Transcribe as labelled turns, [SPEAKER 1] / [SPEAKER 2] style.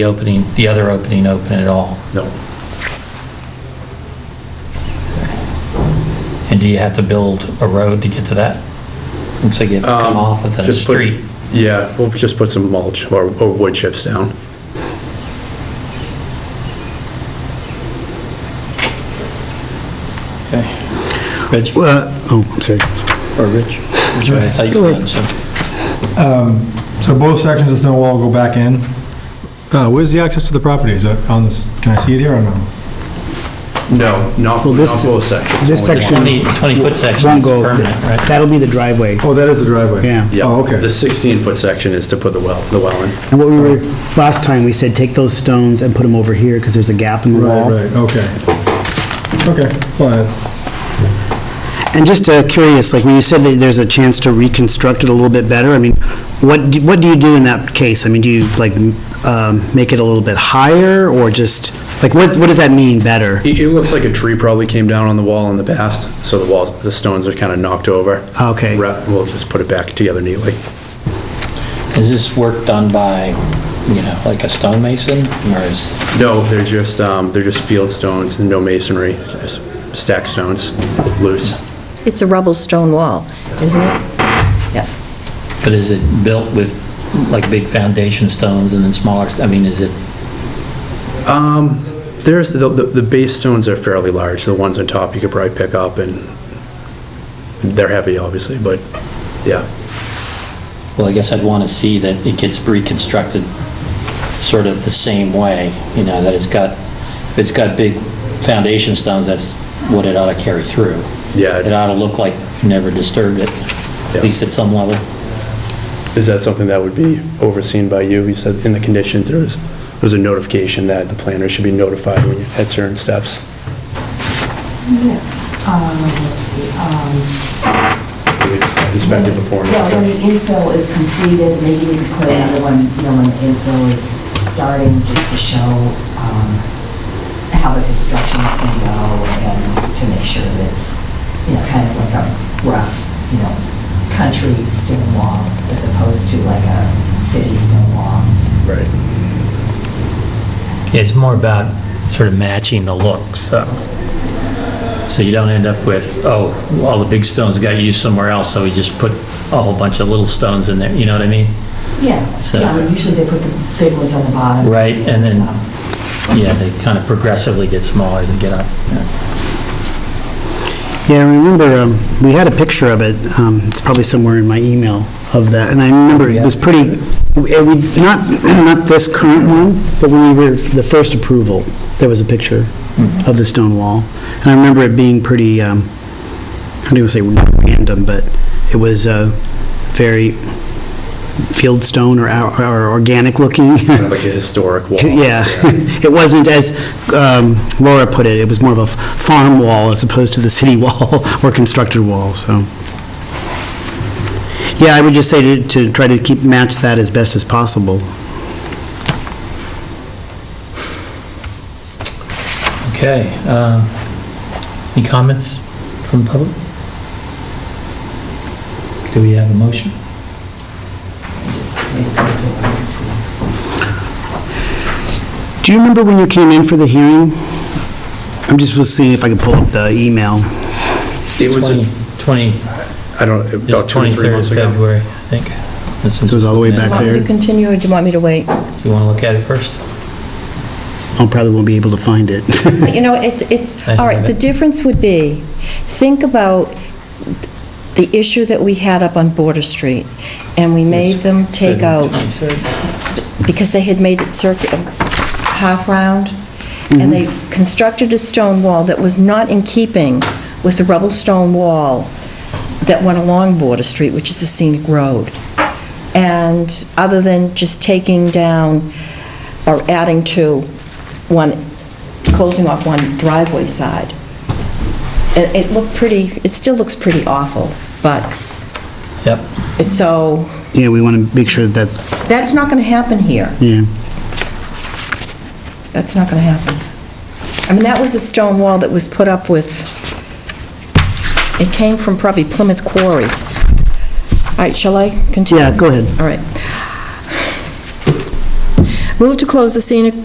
[SPEAKER 1] the opening, the other opening open at all?
[SPEAKER 2] No.
[SPEAKER 1] And do you have to build a road to get to that? And so you have to come
[SPEAKER 2] Um,
[SPEAKER 1] off of the
[SPEAKER 2] just put-
[SPEAKER 1] street?
[SPEAKER 2] Yeah, we'll just put some mulch or, or wood chips down.
[SPEAKER 3] Rich, or
[SPEAKER 4] Well, oh, I'm sorry.
[SPEAKER 3] Rich?
[SPEAKER 1] I thought you were on some-
[SPEAKER 5] So both sections of stone wall go back in. Uh, Where's the access to the property? Is it on this, can I see it here or no?
[SPEAKER 2] No, not, not
[SPEAKER 4] Well, this-
[SPEAKER 2] both sections.
[SPEAKER 4] this
[SPEAKER 2] only one.
[SPEAKER 4] section-
[SPEAKER 1] 20, 20-foot section
[SPEAKER 4] Won't
[SPEAKER 1] is
[SPEAKER 4] go,
[SPEAKER 1] permanent, right?
[SPEAKER 4] that'll be the driveway,
[SPEAKER 5] Oh, that is the driveway.
[SPEAKER 4] yeah.
[SPEAKER 2] Yeah.
[SPEAKER 5] Oh, okay.
[SPEAKER 2] The 16-foot section is to put the well, the well in.
[SPEAKER 4] And what we were, last time, we said, take those stones and put them over here, because there's a gap in the
[SPEAKER 5] Right,
[SPEAKER 4] wall.
[SPEAKER 5] right, okay. Okay, fine.
[SPEAKER 4] And just uh, curious, like, when you said that there's a chance to reconstruct it a little bit better, I mean, what, do- what do you do in that case? I mean, do you, like, m- um, make it a little bit higher, or just, like, what, what does that mean, better?
[SPEAKER 2] It, it looks like a tree probably came down on the wall in the past, so the walls, the stones are kind of knocked over.
[SPEAKER 4] Okay.
[SPEAKER 2] Re- We'll just put it back together neatly.
[SPEAKER 1] Is this work done by, you know, like a stonemason, or is,
[SPEAKER 2] No, they're just, um, they're just field stones and no masonry, just stack stones, loose.
[SPEAKER 6] It's a rubble stone wall, isn't it? Yeah.
[SPEAKER 1] but is it built with like big foundation stones and then smaller, I mean, is it,
[SPEAKER 2] There's, the, the the base stones are fairly large, the ones on top you could probably pick up and they're heavy, obviously, but, yeah.
[SPEAKER 1] well, I guess I'd want to see that it gets reconstructed sort of the same way, you know, that it's got, if it's got big foundation stones, that's what it ought to carry through.
[SPEAKER 2] Yeah.
[SPEAKER 1] It ought to look like you never disturbed it, at
[SPEAKER 2] Yeah.
[SPEAKER 1] least at some level.
[SPEAKER 2] Is that something that would be overseen by you? You said in the condition, there was, there was a notification that the planner should be notified when you had certain steps.
[SPEAKER 7] Um, let's see, um,
[SPEAKER 2] Inspected before and
[SPEAKER 7] yeah, when the
[SPEAKER 2] after.
[SPEAKER 7] infill is completed, maybe we could put another one, you know, when the infill is starting, just to show, um, how the construction is gonna go and to make sure that it's, you know, kind of like a rough, you know, country stone wall as opposed to like a city stone wall.
[SPEAKER 2] Right.
[SPEAKER 1] Yeah, It's more about sort of matching the look, so. So you don't end up with, oh, all the big stones got used somewhere else, so we just put a whole bunch of little stones in there, you know what I mean?
[SPEAKER 7] Yeah,
[SPEAKER 1] So-
[SPEAKER 7] yeah, I mean, usually they put the big ones on the bottom.
[SPEAKER 1] Right, and then-
[SPEAKER 7] Um,
[SPEAKER 1] Yeah, they kind of progressively get smaller to get up.
[SPEAKER 4] Yeah, I remember, um, we had a picture of it, um, it's probably somewhere in my email of that, and I remember it was pretty, it would- not, not this current one, but when we were, the first approval, there was a picture of the stone wall. And I remember it being pretty, um, I don't even say random, but it was uh, very field stone or or- or organic looking.
[SPEAKER 2] Kind of like a historic wall.
[SPEAKER 4] Yeah, it wasn't as um, Laura put it, it was more of a farm wall as opposed to the city wall or constructed wall, so. Yeah, I would just say to, to try to keep, match that as best as possible.
[SPEAKER 1] Okay, um, any comments from the public? Do we have a motion?
[SPEAKER 7] Just maybe put it in one or two weeks.
[SPEAKER 4] Do you remember when you came in for the hearing? I'm just was seeing if I could pull up the email.
[SPEAKER 2] It was, a-
[SPEAKER 1] 20,
[SPEAKER 2] I don't, about two, or three
[SPEAKER 1] 23rd of
[SPEAKER 2] months ago.
[SPEAKER 1] February, I think. So
[SPEAKER 4] it was all the way back
[SPEAKER 6] Want me
[SPEAKER 4] Clear.
[SPEAKER 6] to continue, or do you want me to wait?
[SPEAKER 1] Do you want to look at it first?
[SPEAKER 4] I probably won't be able to find it.
[SPEAKER 6] But you know, it's, it's,
[SPEAKER 1] I
[SPEAKER 6] all right,
[SPEAKER 1] have
[SPEAKER 6] the
[SPEAKER 1] it.
[SPEAKER 6] difference would be, think about the issue that we had up on Border Street, and we made them take out, because they had made it circuit, half-round, and they constructed a stone wall that was not in keeping with the rubble stone wall that went along Border Street, which is a scenic road. And other than just taking down or adding to one, closing off one driveway side, it, it looked pretty, it still looks pretty awful, but,
[SPEAKER 1] Yep.
[SPEAKER 6] it's so,
[SPEAKER 4] Yeah, we want to make sure that,
[SPEAKER 6] that's not going to happen here.
[SPEAKER 4] yeah.
[SPEAKER 6] That's not going to happen. I mean, that was a stone wall that was put up with, it came from probably Plymouth Quarries. All right, shall I continue?
[SPEAKER 4] Yeah, go ahead.
[SPEAKER 6] All right. Move to close the scenic